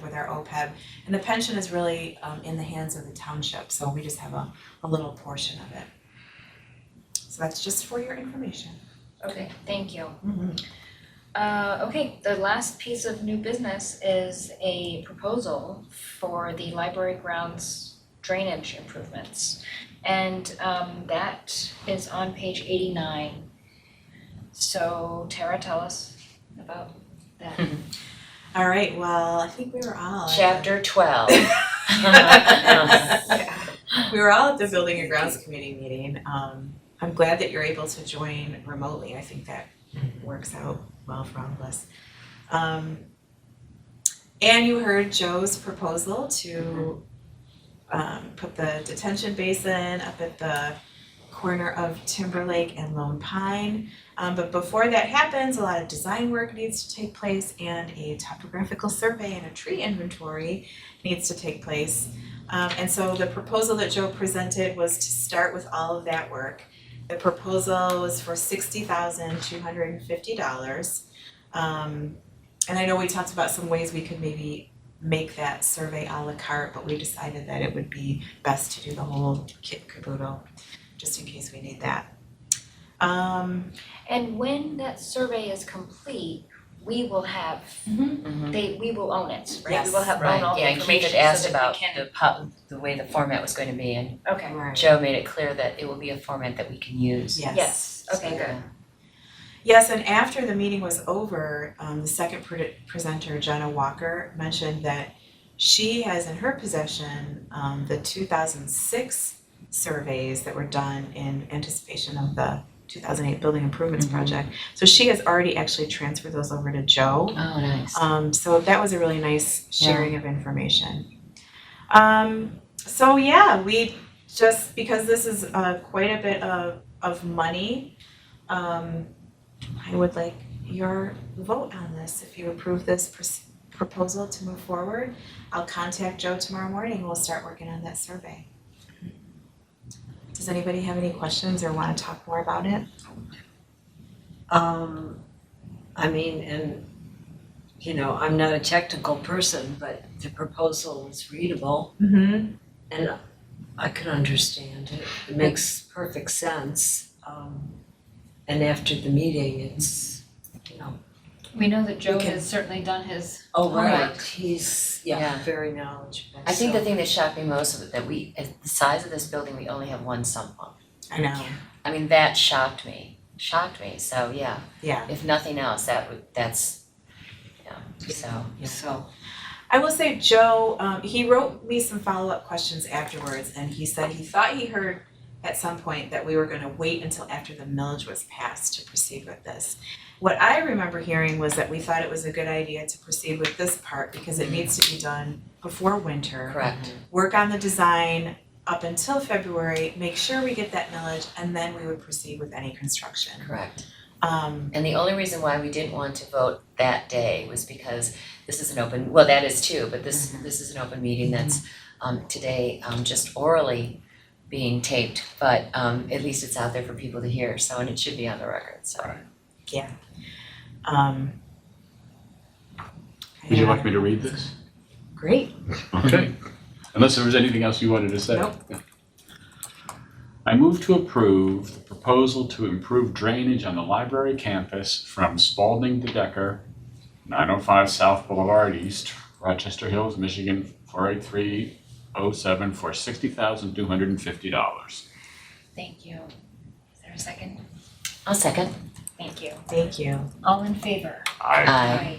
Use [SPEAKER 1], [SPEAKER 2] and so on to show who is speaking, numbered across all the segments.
[SPEAKER 1] with our OPEB. And the pension is really um in the hands of the township, so we just have a a little portion of it. So that's just for your information.
[SPEAKER 2] Okay, thank you. Uh, okay, the last piece of new business is a proposal for the library grounds drainage improvements. And um, that is on page eighty-nine. So Tara, tell us about that.
[SPEAKER 1] All right, well, I think we were all at-
[SPEAKER 3] Chapter twelve.
[SPEAKER 1] We were all at the building and grounds committee meeting. Um, I'm glad that you're able to join remotely. I think that works out well for all of us. Um, and you heard Joe's proposal to um, put the detention basin up at the corner of Timberlake and Lone Pine. Um, but before that happens, a lot of design work needs to take place and a topographical survey and a tree inventory needs to take place. Um, and so the proposal that Joe presented was to start with all of that work. The proposal was for sixty thousand two hundred and fifty dollars. Um, and I know we talked about some ways we could maybe make that survey à la carte, but we decided that it would be best to do the whole kit caboodle, just in case we need that. Um,
[SPEAKER 2] And when that survey is complete, we will have,
[SPEAKER 3] Mhm.
[SPEAKER 2] they, we will own it, right? We
[SPEAKER 1] Yes.
[SPEAKER 2] will have own all
[SPEAKER 3] Right,
[SPEAKER 2] the
[SPEAKER 3] yeah, and Keith
[SPEAKER 2] information
[SPEAKER 3] had
[SPEAKER 2] so
[SPEAKER 3] asked
[SPEAKER 2] that
[SPEAKER 3] about
[SPEAKER 2] we can,
[SPEAKER 3] the pub, the way the format was going to be, and
[SPEAKER 2] okay,
[SPEAKER 3] Joe made it clear that it will be a format that we can use.
[SPEAKER 1] Yes.
[SPEAKER 2] yes, okay,
[SPEAKER 3] So
[SPEAKER 2] good.
[SPEAKER 1] Yes, and after the meeting was over, um, the second pre- presenter, Jenna Walker, mentioned that she has in her possession um, the 2006 surveys that were done in anticipation of the 2008 building improvements
[SPEAKER 3] Mhm.
[SPEAKER 1] project. So she has already actually transferred those over to Joe.
[SPEAKER 3] Oh, nice.
[SPEAKER 1] Um, so that was a really nice sharing of information. Um, so yeah, we just because this is uh, quite a bit of, of money, um, I would like your vote on this. If you approve this pros- proposal to move forward, I'll contact Joe tomorrow morning. We'll start working on that survey. Does anybody have any questions or want to talk more about it?
[SPEAKER 4] Um, I mean, and, you know, I'm not a technical person, but the proposal is readable
[SPEAKER 1] Mm-hmm.
[SPEAKER 4] and I could understand it. It makes perfect sense. Um, and after the meeting, it's, you know,
[SPEAKER 5] We know that Joe
[SPEAKER 4] We can-
[SPEAKER 5] has certainly done his,
[SPEAKER 4] oh, right,
[SPEAKER 5] Right.
[SPEAKER 4] he's, yeah,
[SPEAKER 3] Yeah.
[SPEAKER 4] very knowledgeable,
[SPEAKER 3] I think
[SPEAKER 4] so-
[SPEAKER 3] the thing that shocked me most was that we, at the size of this building, we only have one sump pump.
[SPEAKER 1] I know.
[SPEAKER 3] I mean, that shocked me, shocked me, so yeah,
[SPEAKER 1] Yeah.
[SPEAKER 3] if nothing else, that would, that's, yeah, so.
[SPEAKER 4] So,
[SPEAKER 1] I will say Joe, um, he wrote me some follow-up questions afterwards and he said he thought he heard at some point that we were gonna wait until after the millage was passed to proceed with this. What I remember hearing was that we thought it was a good idea to proceed with this part because it needs to be done before winter.
[SPEAKER 3] Correct,
[SPEAKER 1] Work on the design up until February, make sure we get that millage and then we would proceed with any construction.
[SPEAKER 3] correct.
[SPEAKER 1] Um,
[SPEAKER 3] And the only reason why we didn't want to vote that day was because this is an open, well, that is too, but this, this is an open meeting that's um today um just orally being taped, but um at least it's out there for people to hear, so, and it should be on the record, so.
[SPEAKER 1] um.
[SPEAKER 6] Would you like me to read this?
[SPEAKER 1] Great.
[SPEAKER 6] Okay. Unless there was anything else you wanted to say?
[SPEAKER 1] Nope.
[SPEAKER 6] I move to approve the proposal to improve drainage on the library campus from Spalding to Decker, 905 South Boulevard East, Rochester Hills, Michigan, 48307 for $60,250.
[SPEAKER 2] Thank you. Is there a second?
[SPEAKER 3] I'll second.
[SPEAKER 2] Thank you.
[SPEAKER 1] Thank you.
[SPEAKER 2] All in favor?
[SPEAKER 6] I
[SPEAKER 3] Aye.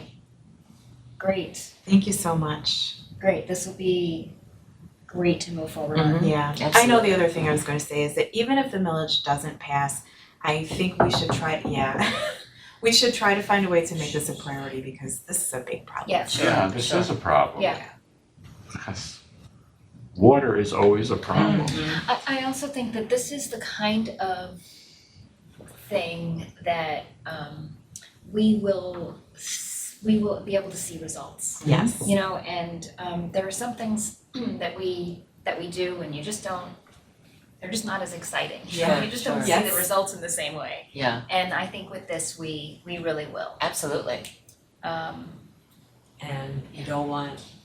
[SPEAKER 2] Great,
[SPEAKER 1] Thank you so much.
[SPEAKER 2] great. This will be great to move forward on.
[SPEAKER 1] Yeah, Mm-hmm. I know the other thing I was gonna say is that even if the millage doesn't pass, I think we should try, yeah. We should try to find a way to make this a priority because this is a big problem.
[SPEAKER 2] Yeah, sure.
[SPEAKER 6] Yeah, this is a problem.
[SPEAKER 2] Yeah.
[SPEAKER 6] Yes. Water is always a problem.
[SPEAKER 2] I, I also think that this is the kind of thing that um, we will, s- we will be able to see results.
[SPEAKER 1] Yes.
[SPEAKER 2] you know and um there are some things that we that we do and you just don't they're just not as exciting you know,
[SPEAKER 3] Yeah,
[SPEAKER 2] you just don't
[SPEAKER 3] sure.
[SPEAKER 2] see
[SPEAKER 1] Yes.
[SPEAKER 2] the results in the same way
[SPEAKER 3] Yeah,
[SPEAKER 2] and i think with this we we really will
[SPEAKER 3] absolutely.
[SPEAKER 2] um
[SPEAKER 4] and you don't want